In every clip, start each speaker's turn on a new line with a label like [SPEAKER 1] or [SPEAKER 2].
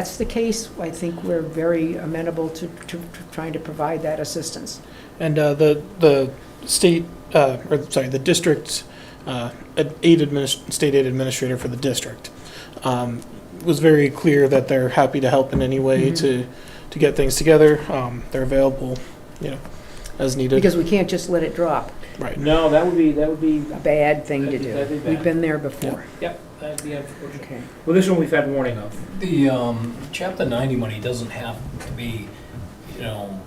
[SPEAKER 1] that's the case, I think we're very amenable to, to to trying to provide that assistance.
[SPEAKER 2] And uh, the, the state, uh, or sorry, the district, uh, ad- aid adminis, state aid administrator for the district, um, was very clear that they're happy to help in any way
[SPEAKER 1] Mhm.
[SPEAKER 2] to, to get things together. Um, They're available, you know, as needed.
[SPEAKER 1] Because we can't just let it drop,
[SPEAKER 2] Right.
[SPEAKER 3] No, that would be, that would be,
[SPEAKER 1] a bad thing to
[SPEAKER 3] That'd be- that'd be
[SPEAKER 1] do.
[SPEAKER 3] bad.
[SPEAKER 1] We've been there before.
[SPEAKER 3] yep, that'd be unfortunate.
[SPEAKER 1] Okay.
[SPEAKER 3] Well, this one we've had warning of.
[SPEAKER 4] The um, Chapter 90 money doesn't have to be, you know,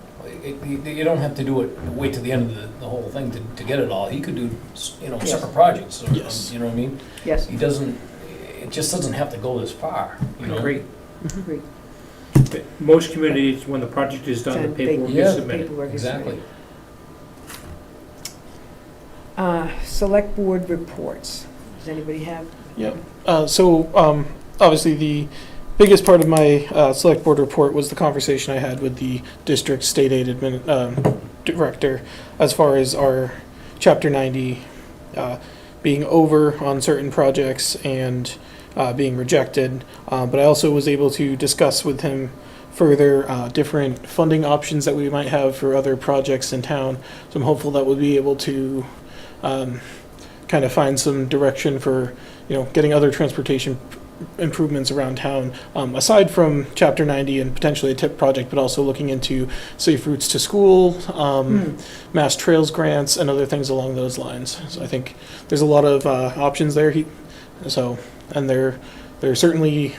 [SPEAKER 4] it- it- you don't have to do it, wait till the end of the the whole thing to to get it all. He could do, you know,
[SPEAKER 1] Yes.
[SPEAKER 4] separate projects, or-
[SPEAKER 2] Yes.
[SPEAKER 4] you know what I mean?
[SPEAKER 1] Yes,
[SPEAKER 4] He doesn't, it just doesn't have to go this far, you know?
[SPEAKER 3] Great. Mhm.
[SPEAKER 1] Agreed.
[SPEAKER 3] But Most communities, when the project is done, the
[SPEAKER 1] Then they-
[SPEAKER 3] paperwork
[SPEAKER 4] Yeah.
[SPEAKER 3] is submitted.
[SPEAKER 1] paperwork is
[SPEAKER 4] Exactly.
[SPEAKER 1] submitted. Uh, Select board reports. Does anybody have?
[SPEAKER 2] Yep. Uh, So um, obviously, the biggest part of my uh, select board report was the conversation I had with the district state aid admin, um, director as far as our Chapter 90 uh, being over on certain projects and uh, being rejected. Uh, But I also was able to discuss with him further uh, different funding options that we might have for other projects in town. So I'm hopeful that we'll be able to kind of find some direction for you know, getting other transportation improvements around town, um, aside from Chapter 90 and potentially a TIP project, but also looking into safe routes to school,
[SPEAKER 1] Hmm.
[SPEAKER 2] um, mass trails grants, and other things along those lines. So I think there's a lot of uh, options there. He, so, and they're they're certainly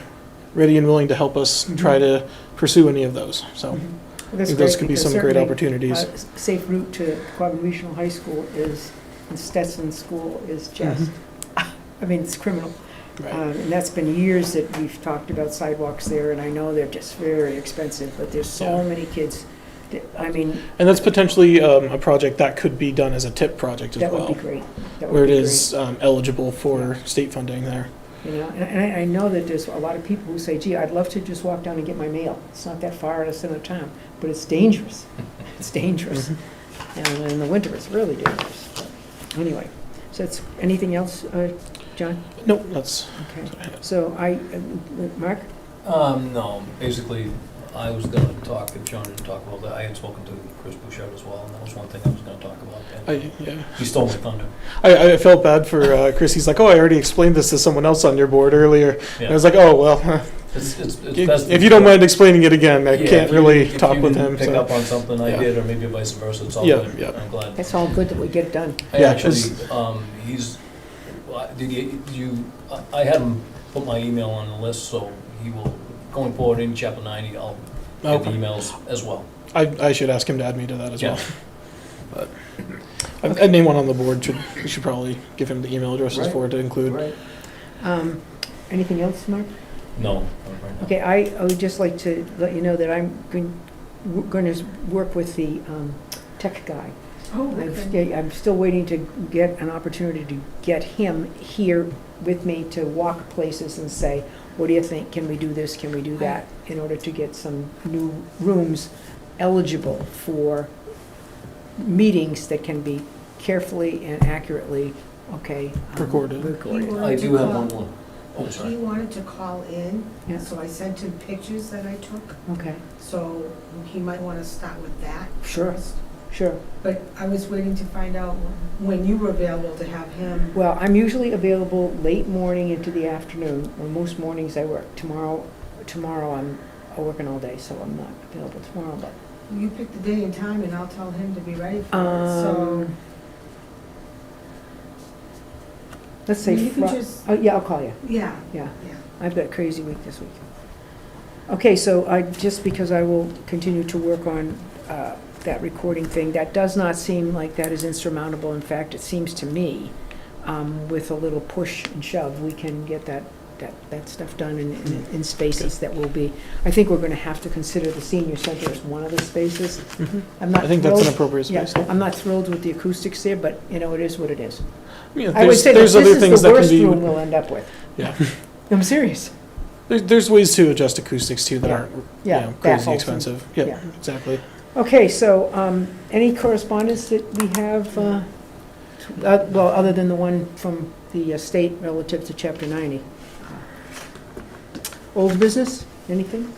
[SPEAKER 2] ready and willing to help us try to pursue any of those. So I
[SPEAKER 1] Mm-hmm. That's
[SPEAKER 2] think those
[SPEAKER 1] great,
[SPEAKER 2] could be
[SPEAKER 1] because
[SPEAKER 2] some great
[SPEAKER 1] certainly,
[SPEAKER 2] opportunities.
[SPEAKER 1] uh, s- Safe route to Quabbin Regional High School is, and Stetson School is just, I mean, it's criminal.
[SPEAKER 2] Mm-hmm. right.
[SPEAKER 1] Um, And that's been years that we've talked about sidewalks there, and I know they're just very expensive, but there's so
[SPEAKER 2] Yeah.
[SPEAKER 1] many kids, that- I mean,
[SPEAKER 2] and that's potentially um, a project that could be done as a TIP project as
[SPEAKER 1] that
[SPEAKER 2] well.
[SPEAKER 1] would be great. That would
[SPEAKER 2] where it
[SPEAKER 1] be great,
[SPEAKER 2] is um, eligible for state funding there.
[SPEAKER 1] You know, and and I, I know that there's a lot of people who say, gee, I'd love to just walk down and get my mail. It's not that far out of center of town, but it's dangerous. It's dangerous. And in the winter, it's really dangerous. But Anyway, so that's, anything else, uh, John?
[SPEAKER 2] Nope, that's,
[SPEAKER 1] Okay, so I, uh, Mark?
[SPEAKER 4] Um, no, basically, I was gonna talk, if John didn't talk about that, I had spoken to Chris Bouchard as well, and that was one thing I was gonna talk about. and
[SPEAKER 2] I, yeah.
[SPEAKER 4] He stole my thunder.
[SPEAKER 2] I, I felt bad for uh, Chris. He's like, oh, I already explained this to someone else on your board earlier. And I was like, oh, well, huh.
[SPEAKER 4] It's- it's- it's best-
[SPEAKER 2] if you don't mind explaining it again, I
[SPEAKER 4] Yeah,
[SPEAKER 2] can't
[SPEAKER 4] if you-
[SPEAKER 2] really
[SPEAKER 4] if you
[SPEAKER 2] talk with him.
[SPEAKER 4] didn't Pick
[SPEAKER 2] so.
[SPEAKER 4] up on something I
[SPEAKER 2] Yeah.
[SPEAKER 4] did, or maybe vice versa, it's all
[SPEAKER 2] Yeah,
[SPEAKER 4] good.
[SPEAKER 2] yeah.
[SPEAKER 4] I'm glad.
[SPEAKER 1] It's all good that we get it done.
[SPEAKER 4] I
[SPEAKER 2] Yeah,
[SPEAKER 4] actually,
[SPEAKER 2] just-
[SPEAKER 4] um, he's, well, did you, did you, I- I had him put my email on the list, so he will, going forward in chapter ninety, I'll get the
[SPEAKER 2] Okay.
[SPEAKER 4] emails as well.
[SPEAKER 2] I, I should ask him to add me to that as
[SPEAKER 4] Yeah.
[SPEAKER 2] well. But I- anyone on the board should we should probably give him the email addresses
[SPEAKER 4] Right.
[SPEAKER 2] for it to include.
[SPEAKER 1] Um, Anything else, Mark?
[SPEAKER 4] No. not right now.
[SPEAKER 1] Okay, I, I would just like to let you know that I'm going, going to work with the um, tech guy.
[SPEAKER 5] Oh,
[SPEAKER 1] I'm
[SPEAKER 5] okay.
[SPEAKER 1] st- I'm still waiting to get an opportunity to get him here with me to walk places and say, what do you think? Can we do this? Can we do that? In order to get some new rooms eligible for meetings that can be carefully and accurately, okay. um,
[SPEAKER 2] Recorded.
[SPEAKER 1] Recorded.
[SPEAKER 4] I do have one more. Oh,
[SPEAKER 5] He
[SPEAKER 4] sorry.
[SPEAKER 5] wanted to call in,
[SPEAKER 1] Yeah,
[SPEAKER 5] so I sent him pictures that I took,
[SPEAKER 1] okay,
[SPEAKER 5] so he might want to start with that
[SPEAKER 1] sure,
[SPEAKER 5] first.
[SPEAKER 1] sure.
[SPEAKER 5] But I was waiting to find out when you were available to have him.
[SPEAKER 1] Well, I'm usually available late morning into the afternoon, or most mornings I work. Tomorrow, tomorrow I'm working all day, so I'm not available tomorrow, but
[SPEAKER 5] You pick the day and time, and I'll tell him to be ready for it, so.
[SPEAKER 1] Um, let's say,
[SPEAKER 5] You can
[SPEAKER 1] Fri-
[SPEAKER 5] just,
[SPEAKER 1] oh, yeah, I'll call you,
[SPEAKER 5] yeah,
[SPEAKER 1] yeah.
[SPEAKER 5] yeah.
[SPEAKER 1] I've got a crazy week this week. Okay, so I, just because I will continue to work on uh, that recording thing, that does not seem like that is insurmountable. In fact, it seems to me, um, with a little push and shove, we can get that, that, that stuff done in, in- in spaces that will be, I think we're gonna have to consider the senior center as one of the spaces.
[SPEAKER 2] Mhm.
[SPEAKER 1] I'm not
[SPEAKER 2] I think that's an
[SPEAKER 1] thrilled-
[SPEAKER 2] appropriate
[SPEAKER 1] yeah, um,
[SPEAKER 2] space.
[SPEAKER 1] I'm not thrilled with the acoustics there, but, you know, it is what it is.
[SPEAKER 2] Yeah,
[SPEAKER 1] I would
[SPEAKER 2] there's
[SPEAKER 1] say that
[SPEAKER 2] there's
[SPEAKER 1] this
[SPEAKER 2] other
[SPEAKER 1] is
[SPEAKER 2] things
[SPEAKER 1] the
[SPEAKER 2] that can
[SPEAKER 1] worst
[SPEAKER 2] be.
[SPEAKER 1] room we'll end up with.
[SPEAKER 2] Yeah.
[SPEAKER 1] I'm serious,
[SPEAKER 2] There's, there's ways to adjust acoustics too that
[SPEAKER 1] Yeah.
[SPEAKER 2] aren't you
[SPEAKER 1] yeah.
[SPEAKER 2] know,
[SPEAKER 1] that
[SPEAKER 2] crazy
[SPEAKER 1] whole thing.
[SPEAKER 2] expensive. Yeah,
[SPEAKER 1] Yeah.
[SPEAKER 2] exactly.
[SPEAKER 1] Okay, so um, any correspondence that we have, uh, to- uh, well, other than the one from the uh, state relative to Chapter 90? Old business? Anything?